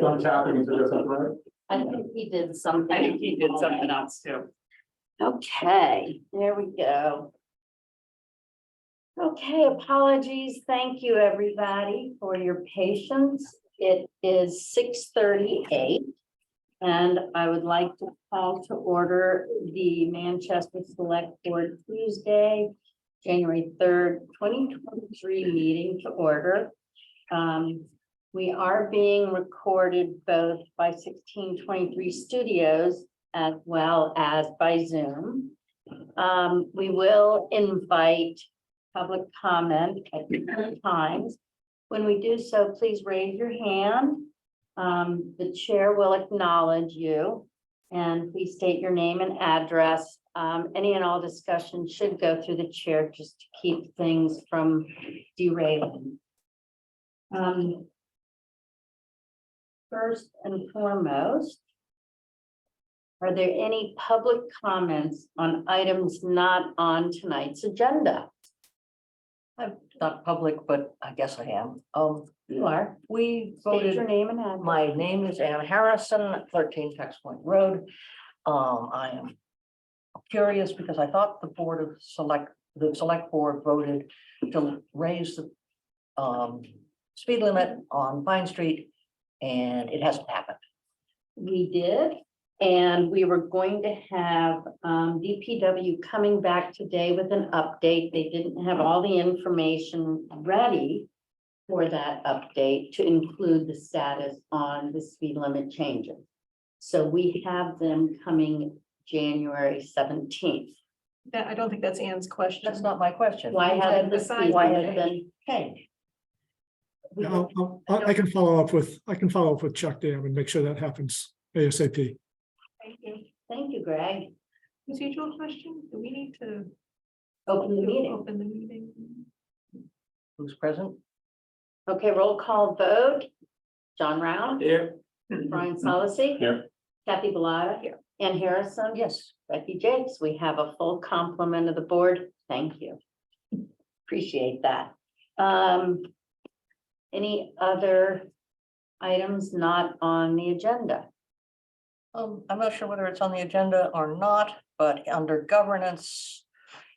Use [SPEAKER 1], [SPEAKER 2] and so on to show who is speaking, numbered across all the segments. [SPEAKER 1] on tapping into this, right?
[SPEAKER 2] I think he did
[SPEAKER 3] I
[SPEAKER 2] something.
[SPEAKER 3] think he did something else too.
[SPEAKER 2] Okay, there we go. Okay, apologies. Thank you, everybody, for your patience. It is six thirty-eight. And I would like to call to order the Manchester Select Board Tuesday, January third, twenty twenty-three meeting to order. Um, we are being recorded both by sixteen twenty-three studios as well as by Zoom. Um, we will invite public comment at different times. When we do so, please raise your hand. Um, the chair will acknowledge you. And please state your name and address. Um, any and all discussion should go through the chair just to keep things from derailing. Um, First and foremost, are there any public comments on items not on tonight's agenda? I'm not public, but I guess I am. Oh, you are.
[SPEAKER 4] Um, We
[SPEAKER 2] State your
[SPEAKER 4] voted,
[SPEAKER 2] name and address.
[SPEAKER 4] my name is Ann Harrison, thirteen Tex Point Road. Um, I am curious because I thought the Board of Select, the Select Board voted to raise the um, speed limit on Vine Street, and it hasn't happened.
[SPEAKER 2] We did, and we were going to have um DPW coming back today with an update. They didn't have all the information ready for that update to include the status on the speed limit changes. So we have them coming January seventeenth.
[SPEAKER 5] That, I don't think that's Anne's question.
[SPEAKER 4] That's not my question.
[SPEAKER 2] Why haven't the speed
[SPEAKER 4] Why
[SPEAKER 2] limit
[SPEAKER 4] hasn't it
[SPEAKER 2] been changed?
[SPEAKER 4] We-
[SPEAKER 6] I'll- I'll- I I can follow up with, I can follow up with Chuck Dam and make sure that happens ASAP.
[SPEAKER 2] Thank you, Greg.
[SPEAKER 5] Procedural question, do we need to
[SPEAKER 2] Open the meeting.
[SPEAKER 5] open the meeting?
[SPEAKER 4] Who's present?
[SPEAKER 2] Okay, roll call vote. John Round,
[SPEAKER 3] Here.
[SPEAKER 2] Brian Solacey.
[SPEAKER 1] Here.
[SPEAKER 2] Kathy Bellata.
[SPEAKER 5] Here.
[SPEAKER 2] Ann Harrison.
[SPEAKER 4] Yes,
[SPEAKER 2] Becky Jakes, we have a full complement of the board. Thank you. Appreciate that. Um, any other items not on the agenda?
[SPEAKER 4] Um, I'm not sure whether it's on the agenda or not, but under governance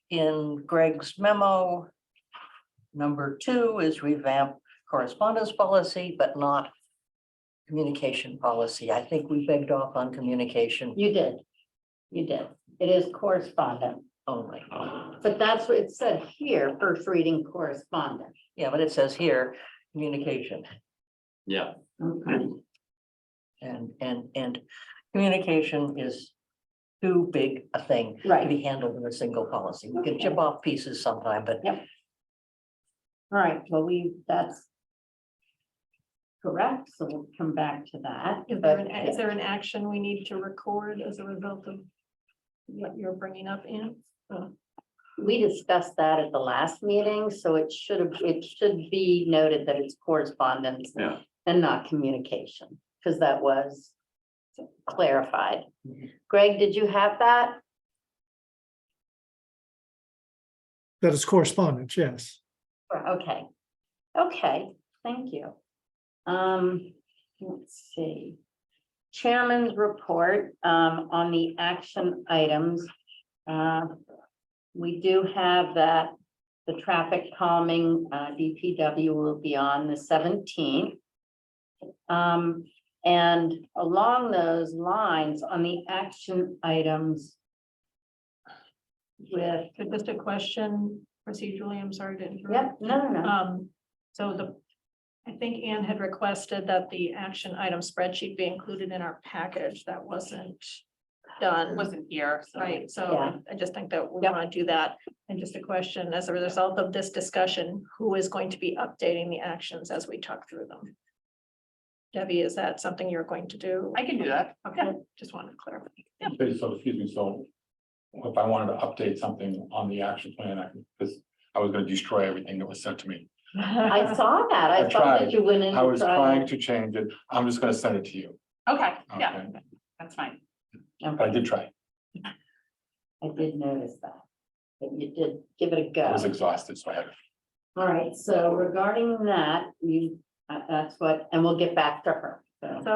[SPEAKER 4] in Greg's memo. Number two is revamp correspondence policy, but not communication policy. I think we begged off on communication
[SPEAKER 2] You did. You did. It is correspondent,
[SPEAKER 4] only.
[SPEAKER 2] but that's what it said here, first reading correspondent.
[SPEAKER 4] Yeah, but it says here, communication
[SPEAKER 3] Yeah.
[SPEAKER 2] Okay.
[SPEAKER 4] and, and, and communication is too big a thing to
[SPEAKER 2] Right.
[SPEAKER 4] be handled in a single policy. We can chip off pieces sometime, but
[SPEAKER 2] All right, well, we, that's. Correct, so we'll come back to that.
[SPEAKER 5] Is there, an is there an action we need to record as a result of what you're bringing up, Anne?
[SPEAKER 2] Uh, We discussed that at the last meeting, so it should have, it should be noted that it's correspondence.
[SPEAKER 3] Yeah.
[SPEAKER 2] And not communication, because that was clarified. Greg, did you have that?
[SPEAKER 6] That is correspondence, yes.
[SPEAKER 2] Or- Okay, okay, thank you. Um, let's see. Chairman's report um on the action items. Uh, We do have that the traffic calming uh DPW will be on the seventeenth. Um, and along those lines, on the action items. With,
[SPEAKER 5] But Just a question procedurally, I'm sorry to interrupt.
[SPEAKER 2] yep, no, no, no,
[SPEAKER 5] Um, so the, I think Anne had requested that the action item spreadsheet be included in our package. That wasn't done.
[SPEAKER 3] Wasn't here, so.
[SPEAKER 5] Right,
[SPEAKER 2] Yeah.
[SPEAKER 5] so I just think that we
[SPEAKER 2] Yep.
[SPEAKER 5] want to do that. And just a question, as a result of this discussion, who is going to be updating the actions as we talk through them? Debbie, is that something you're going to do?
[SPEAKER 3] I can do that.
[SPEAKER 5] Okay, just wanted to clarify.
[SPEAKER 7] Okay, so excuse me, so if I wanted to update something on the action plan, I can, because I was gonna destroy everything that was sent to me.
[SPEAKER 2] I saw that, I
[SPEAKER 7] I
[SPEAKER 2] saw that
[SPEAKER 7] tried.
[SPEAKER 2] you went in.
[SPEAKER 7] I
[SPEAKER 2] and
[SPEAKER 7] was
[SPEAKER 2] tried.
[SPEAKER 7] trying to change it. I'm just gonna send it to you.
[SPEAKER 3] Okay, yeah,
[SPEAKER 7] Okay,
[SPEAKER 3] that's fine.
[SPEAKER 7] But I did try.
[SPEAKER 2] I did notice that, but you did give it a
[SPEAKER 7] I was
[SPEAKER 2] go.
[SPEAKER 7] exhausted, so I had.
[SPEAKER 2] All right, so regarding that, you, uh, that's what, and we'll get back to her, so.